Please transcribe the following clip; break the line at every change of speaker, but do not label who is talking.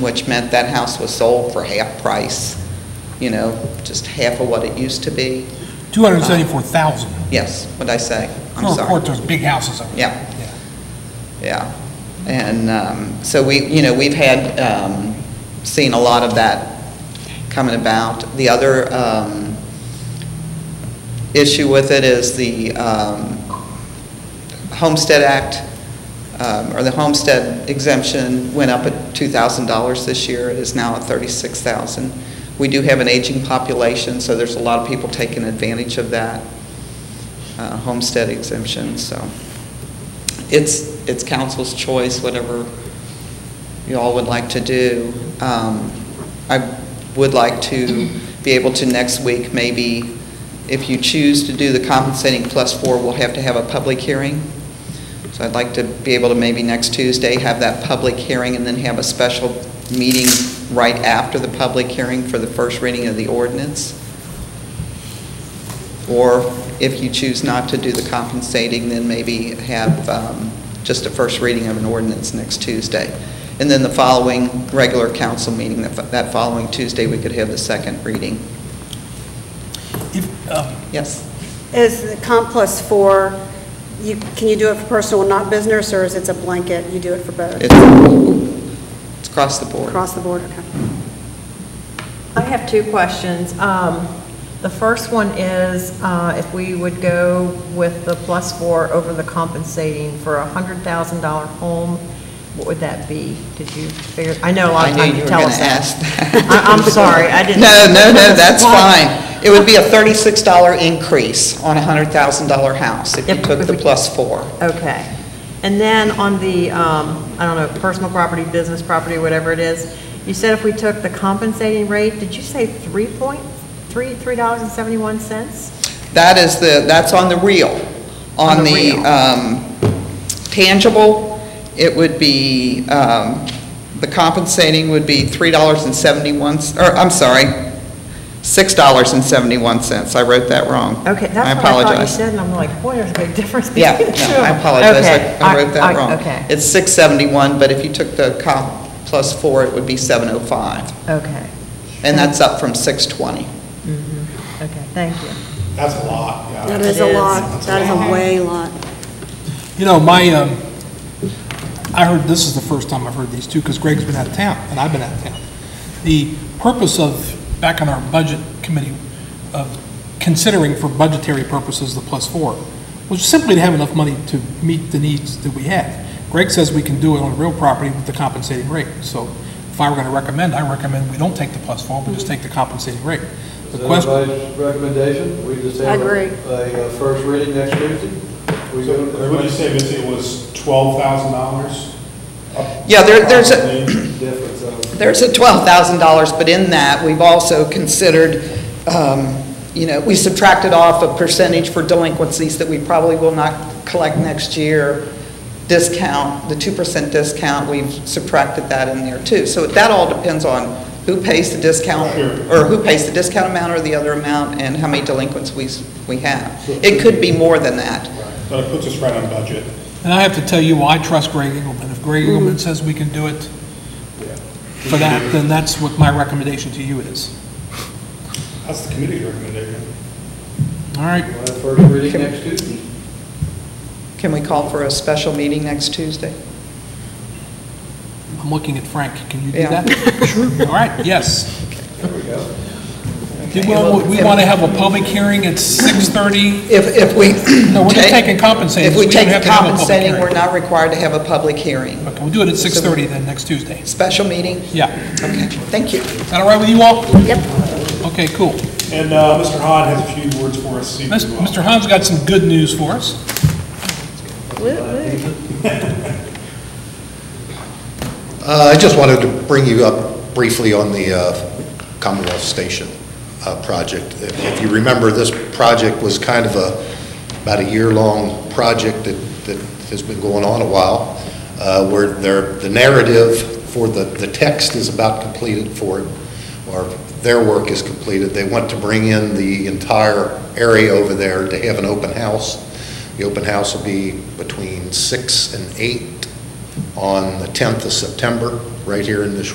which meant that house was sold for half price, you know, just half of what it used to be.
274,000.
Yes, what'd I say? I'm
Well, Of course,
sorry.
there's big houses over there.
Yeah. Yeah. And um, so we, you know, we've had, um, seen a lot of that coming about. The other um, issue with it is the um, Homestead Act, um, or the homestead exemption went up at $2,000 this year. It is now at $36,000. We do have an aging population, so there's a lot of people taking advantage of that uh, homestead exemption, so it's, it's council's choice, whatever you all would like to do. Um, I would like to be able to next week, maybe, if you choose to do the compensating plus four, we'll have to have a public hearing. So I'd like to be able to maybe next Tuesday have that public hearing and then have a special meeting right after the public hearing for the first reading of the ordinance. Or if you choose not to do the compensating, then maybe have um, just a first reading of an ordinance next Tuesday. And then the following regular council meeting, that that following Tuesday, we could have the second reading.
If, um,
Yes?
Is the comp plus four, you, can you do it for personal and not business, or is it a blanket, you do it for both?
It's it's across the board.
Across the board, okay.
I have two questions. Um, The first one is uh, if we would go with the plus four over the compensating for a $100,000 home, what would that be? Did you figure, I know a lot
I
of
knew
times
you
you
were
tell
going
us
to
that.
ask that.
I- I'm sorry, I didn't-
No, no, no, that's
Why?
fine. It would be a $36 increase on a $100,000 house if you
If-
took
if
the
we-
plus four.
Okay. And then on the, um, I don't know, personal property, business property, whatever it is, you said if we took the compensating rate, did you say three point, three, three dollars and seventy-one cents?
That is the, that's on the real.
On
On
the
the
real.
um, tangible, it would be, um, the compensating would be $3.71, or, I'm sorry, $6.71. I wrote that wrong.
Okay,
I
that's what I thought you
apologize.
said, and I'm like, boy, there's a big difference between
Yeah,
the two.
no, I apologize,
Okay,
I- I wrote that wrong.
Okay,
It's 671, but if you took the comp plus four, it would be 705,
okay,
and that's up from 620.
okay, thank you.
That's a lot,
That
yeah.
is
It
a
is.
lot, that is a way lot.
You know, my, um, I heard, this is the first time I've heard these two, because Greg's been out of town, and I've been out of town. The purpose of, back on our budget committee, of considering for budgetary purposes the plus four, was simply to have enough money to meet the needs that we have. Greg says we can do it on real property with the compensating rate, so if I were going to recommend, I recommend we don't take the plus four, but just take the compensating rate. The
Is that
question.
everybody's recommendation? We just
I
have
agree.
a, a first reading next Tuesday? We
So
go-
What did you say, Mitzi, it was twelve thousand dollars?
Yeah, there- there's a-
Difference of.
There's a $12,000, but in that, we've also considered, um, you know, we subtracted off a percentage for delinquencies that we probably will not collect next year, discount, the 2% discount, we've subtracted that in there too. So that all depends on who pays the discount, or who pays the discount amount or the other amount, and how many delinquents we s- we have. It could be more than that.
But it puts us right on budget.
And I have to tell you, why I trust Greg Engelman. If Greg Engelman says we can do it for that, then that's what my recommendation to you is.
That's the committee's recommendation.
All right,
We'll have first reading next Tuesday?
Can we call for a special meeting next Tuesday?
I'm looking at Frank. Can you do
Yeah.
that? Sure. All right, yes.
There we go.
Do we want- we want to have a public hearing at 6:30?
If, if we.
No, we're just
take-
taking compensating,
If
so
we
we don't
take
have
the
to have a public
compensating,
hearing.
we're not required to have a public hearing.
Okay, we'll do it at 6:30 then, next Tuesday.
Special meeting?
Yeah.
Okay, thank you.
Is that all right with you all? Yep. Okay, cool.
And, uh, Mr. Hahn has a few words for us. this evening
Mis-
as well.
Mr. Hahn's got some good news for us.
Uh, I just wanted to bring you up briefly on the uh, Commonwealth Station uh, project. If if you remember, this project was kind of a, about a year-long project that that has been going on a while, uh, where there, the narrative for the, the text is about completed for it, or their work is completed. They want to bring in the entire area over there to have an open house. The open house will be between six and eight on the 10th of September, right here in this